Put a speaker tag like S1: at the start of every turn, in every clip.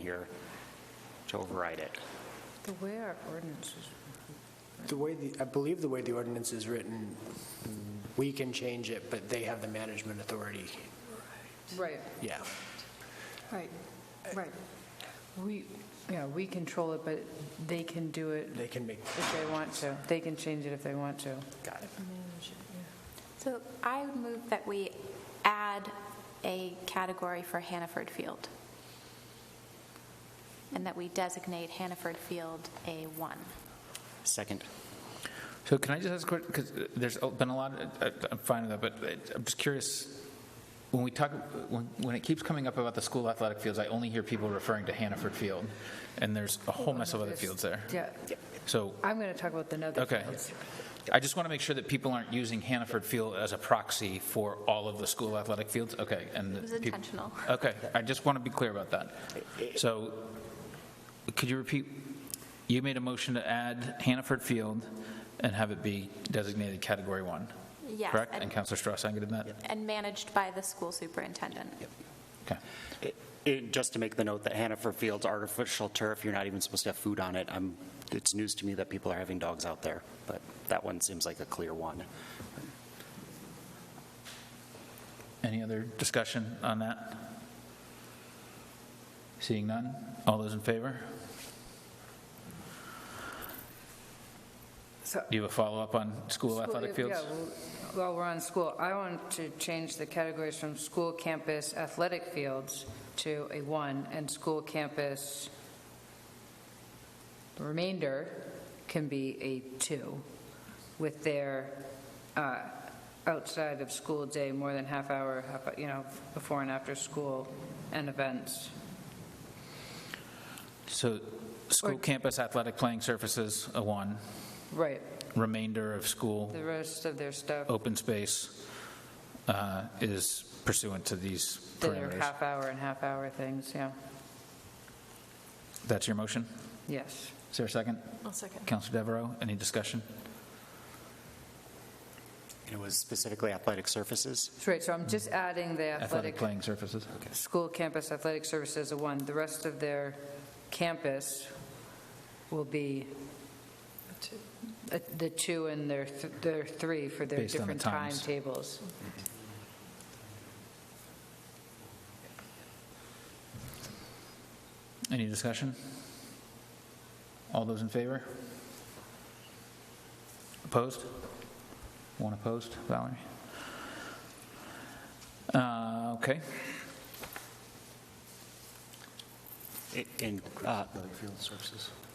S1: here to override it.
S2: The way our ordinance is,
S3: The way, the I believe the way the ordinance is written, we can change it, but they have the management authority,
S2: right,
S3: yeah.
S2: right, right. We, yeah, we control it, but they can do it
S3: They can make,
S2: if they want to. They can change it if they want to.
S3: got it.
S4: So I would move that we add a category for Hannaford Field, and that we designate Hannaford Field A1.
S1: Second.
S5: So can I just ask a question, because there's been a lot, I- I'm fine with that, but I- I'm just curious, when we talk, when when it keeps coming up about the school athletic fields, I only hear people referring to Hannaford Field, and there's a whole mess of other fields there.
S2: Yeah,
S5: So,
S2: I'm going to talk about the another.
S5: okay, I just want to make sure that people aren't using Hannaford Field as a proxy for all of the school athletic fields, okay? and
S4: It was
S5: peop-
S4: intentional.
S5: Okay, I just want to be clear about that. So, could you repeat, you made a motion to add Hannaford Field and have it be designated Category 1?
S4: Yes,
S5: Correct?
S4: and-
S5: And Counselor Strauss seconded that?
S4: And managed by the school superintendent.
S5: Okay.
S1: And uh, just to make the note that Hannaford Field's artificial turf, you're not even supposed to have food on it. I'm, it's news to me that people are having dogs out there, but that one seems like a clear one.
S5: Any other discussion on that? Seeing none? All those in favor?
S2: So-
S5: Do you have a follow-up on school athletic
S2: School-
S5: fields?
S2: yeah, well, While we're on school, I want to change the categories from school campus athletic fields to a one, and school campus the remainder can be a two, with their uh, outside of school day, more than half hour, half- you know, before and after school, and events.
S5: So, school
S2: Or-
S5: campus athletic playing surfaces, a 1.
S2: Right,
S5: remainder of school
S2: the rest of their stuff,
S5: open space uh, is pursuant to these
S2: their
S5: parameters.
S2: half hour and half hour things, yeah,
S5: That's your motion?
S2: yes.
S5: Is there a second?
S6: I'll second.
S5: Counselor Devereaux, any discussion?
S1: And it was specifically athletic surfaces?
S2: That's right, so I'm just adding the
S5: Athletic
S2: athletic
S5: playing surfaces?
S2: school campus athletic services a one. The rest of their campus will be
S6: Two.
S2: uh, the two and their, th- their three for their
S5: Based on the
S2: different
S5: times.
S2: timetables.
S5: Any discussion? All those in favor? Opposed? One opposed, Valerie? Uh, Okay,
S1: And uh,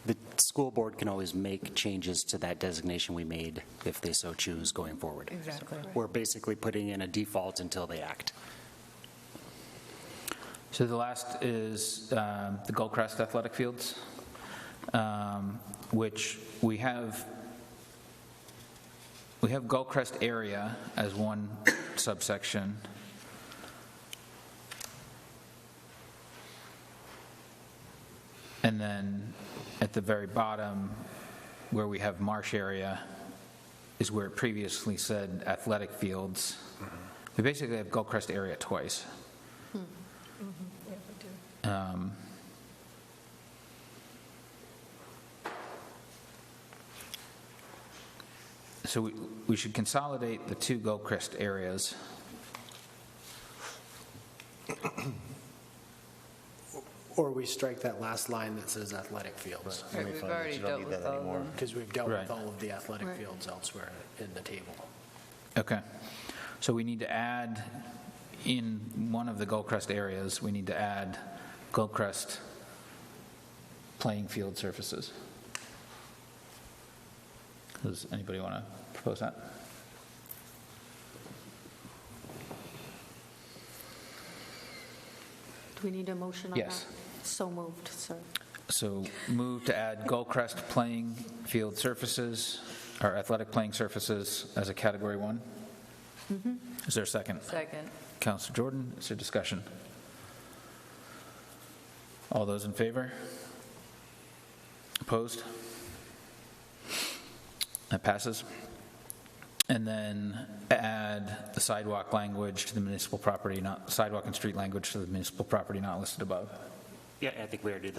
S1: the school board can always make changes to that designation we made if they so choose going forward.
S2: Exactly.
S1: We're basically putting in a default until they act.
S5: So the last is um, the Goldcrest Athletic Fields, um, which we have, we have Goldcrest area as one subsection. And then at the very bottom, where we have marsh area, is where it previously said athletic fields. We basically have Goldcrest area twice.
S6: Yeah, we do.
S5: Um, So we we should consolidate the two Gilchrist areas.
S3: Or we strike that last line that says athletic fields,
S2: Right, We've already dealt with all of them.
S3: because we've dealt
S5: Right.
S3: with all of the athletic
S6: Right.
S3: fields elsewhere in the table.
S5: Okay. So we need to add, in one of the Gilchrist areas, we need to add Gilchrist playing field surfaces. Does anybody want to propose that?
S7: Do we need a motion on that?
S5: Yes.
S7: So moved, sir.
S5: So move to add Goldcrest playing field surfaces, or athletic playing surfaces as a category one? Is there a second?
S2: Second.
S5: Counselor Jordan, is there discussion? All those in favor? Opposed? That passes. And then add the sidewalk language to the municipal property, not, sidewalk and street language to the municipal property not listed above.
S1: Yeah, I think we already did that.